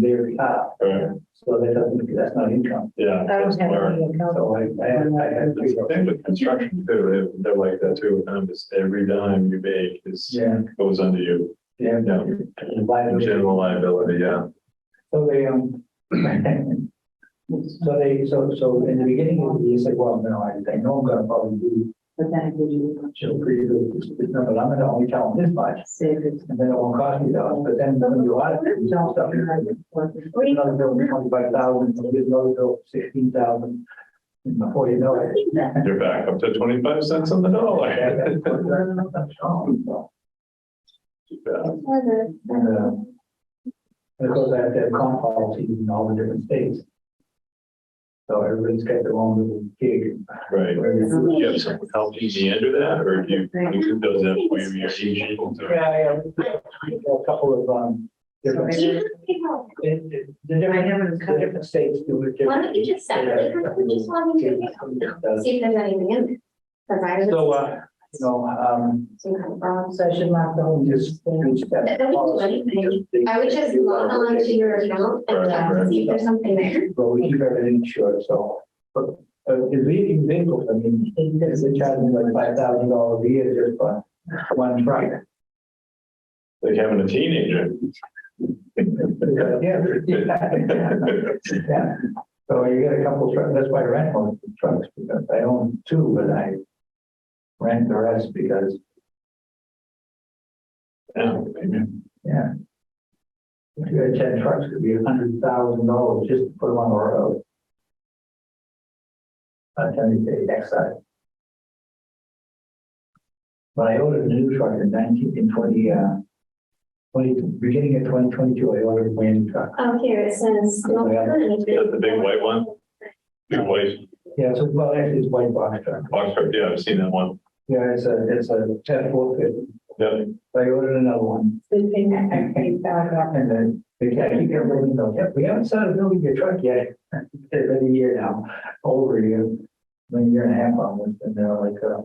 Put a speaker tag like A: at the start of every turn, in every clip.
A: their top,
B: Right,
A: so that doesn't, that's not income.
B: yeah.
C: I
B: that's
C: don't have
B: where-
C: any account.
A: So I, I, had- I had.
B: That's the thing with construction too, they- they're like that too, um, is every dime you make is,
A: Yeah,
B: goes under you,
A: yeah.
B: yeah. General liability, yeah.
A: So they, um, so they, so, so in the beginning of the year, say, well, no, I, I know I'm gonna probably do,
C: But then it gives you
A: chill pretty good, this this number, I'm gonna only tell them this much,
C: savings.
A: and then it won't cost me that, but then when you audit it, you tell stuff, you're like, another bill twenty-five thousand, another bill sixteen thousand, before you know it.
B: You're back up to twenty-five cents on the dollar.
A: And
B: Yeah,
A: of course, I have to have comp policies in all the different states. So everybody's got their own little gig.
B: Right, do you have someone helping you under that, or do you, you do those that way you're agent? or-
A: Yeah, yeah, a couple of, um, different,
D: You have people.
A: it- it- the different, the different states do it.
D: Why don't you just separate them, we just want them to- see if there's anything in there. Cause I was.
A: So, uh, You know, um,
D: Some kind of wrong.
C: So I should lock the whole.
A: just. reach that policy, just-
D: I would just log on to your account and uh, see if there's something there.
A: But we keep everything short, so, but, uh, the leading vehicles, I mean, it's a charge me like five thousand dollars a year just for one truck.
B: Like having a teenager.
A: Yeah. Yeah. So you get a couple trucks, that's why I rent one of the trucks, because I own two, but I rent the rest because,
B: Yeah, maybe.
A: yeah. If you had ten trucks, it'd be a hundred thousand dollars just to put them on the road. I'm telling you, the excise. But I ordered a new truck in nineteen, in twenty, uh, twenty, beginning of twenty twenty-two, I ordered a brand new truck.
D: Oh, here it says. no current.
B: That's the big white one? Big white
A: Yeah, so, well, actually, it's white box truck.
B: box truck, yeah, I've seen that one.
A: Yeah, it's a, it's a ten four fifty.
B: Yeah,
A: I ordered another one
C: They pay that back, pay that back.
A: and then they can't, you can't really know yet. We haven't started building your truck yet. It's been a year now, over a year, been a year and a half almost, and they're like, uh.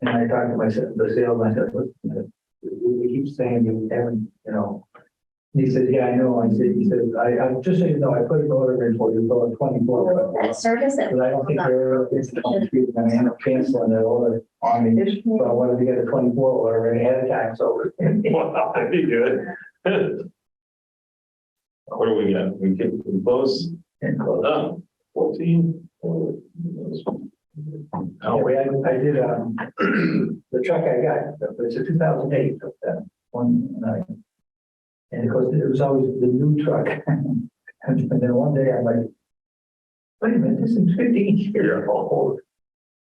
A: And I talked to myself, the salesman, I said, listen, we, we keep saying you haven't, you know. He said, yeah, I know. I said, he said, I, I just so you know, I put an order in for you, for twenty four.
D: That service that.
A: But I don't think they're, it's, I end up canceling that order on me. So I wanted to get a twenty-four order and ahead of time, so.
B: wow, that'd be good. What do we got? We can we close,
A: And close.
B: oh, fourteen? Oh,
A: Anyway,
B: wait,
A: I, I Oh, did, um, the truck I got, it's a two thousand eight, that one, nine. And of course, it was always the new truck. And then one day I'm like, wait a minute, this is fifteen years old.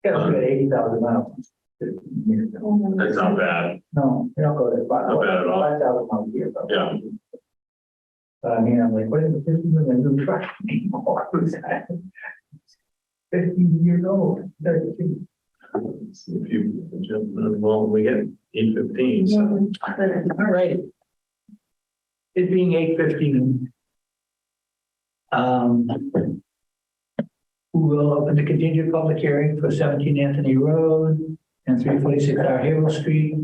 A: Yeah, it's got eighty thousand miles. 15 years old.
B: that's not bad,
A: No, you don't go that far.
B: Not bad at all.
A: Five thousand miles a year. though.
B: Yeah.
A: But I mean, I'm like, what is this isn't a new truck anymore? Fifteen years old, thirteen.
B: if you, well, we get eight fifteen, so.
C: Mhm.
A: All right. It being eight fifteen. Um. We will open the continued public hearing for seventeen Anthony Road and three forty-six Our Hero Street.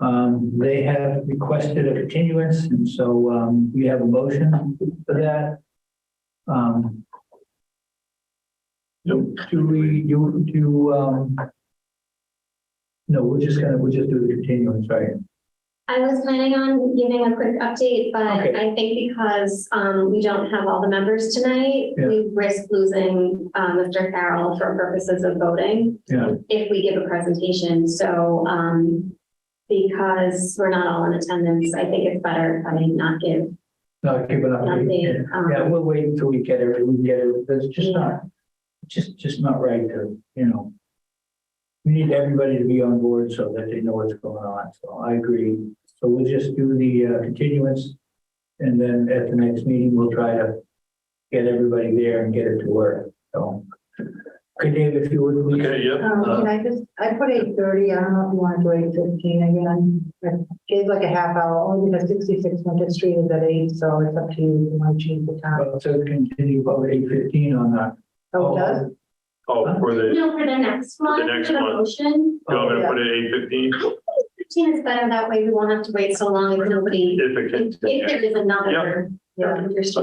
A: Um, they have requested a continuance, and so, um, we have a motion for that. Um, do do we, do, do, um. No, we're just gonna, we're just do the continuance, right?
D: I was planning on giving a quick update, but
A: Okay.
D: I think because um we don't have all the members tonight,
A: Yeah.
D: we risk losing uh Mr. Farrell for purposes of voting.
A: Yeah.
D: If we give a presentation, so um because we're not all in attendance, I think it's better if I not give.
A: No, keep it up.
D: Nothing, um,
A: Yeah, we'll wait until we get it, we can get it, that's just not, just, just not right to, you know. We need everybody to be on board so that they know what's going on, so I agree. So we'll just do the uh, continuance. And then at the next meeting, we'll try to get everybody there and get it to work, so. Okay, Dave, if you would, please.
B: Okay, yeah,
C: Um,
B: uh,
C: can I just, I put eight thirty, I don't know if you want to do eight fifteen again. I gave like a half hour, only because sixty-six Market Street is at eight, so it's up to you, you might change the time.
A: Well, uh, So continue about eight fifteen on that.
C: Oh, it does?
B: oh, for the,
D: No, for the next one,
B: next
D: for the
B: one.
D: motion,
B: you want me to put it eight fifteen?
D: fifteen is better, that way we won't have to wait so long if nobody,
B: If it
D: if
B: can,
D: if there is
B: Yeah.
D: another Yeah, you're still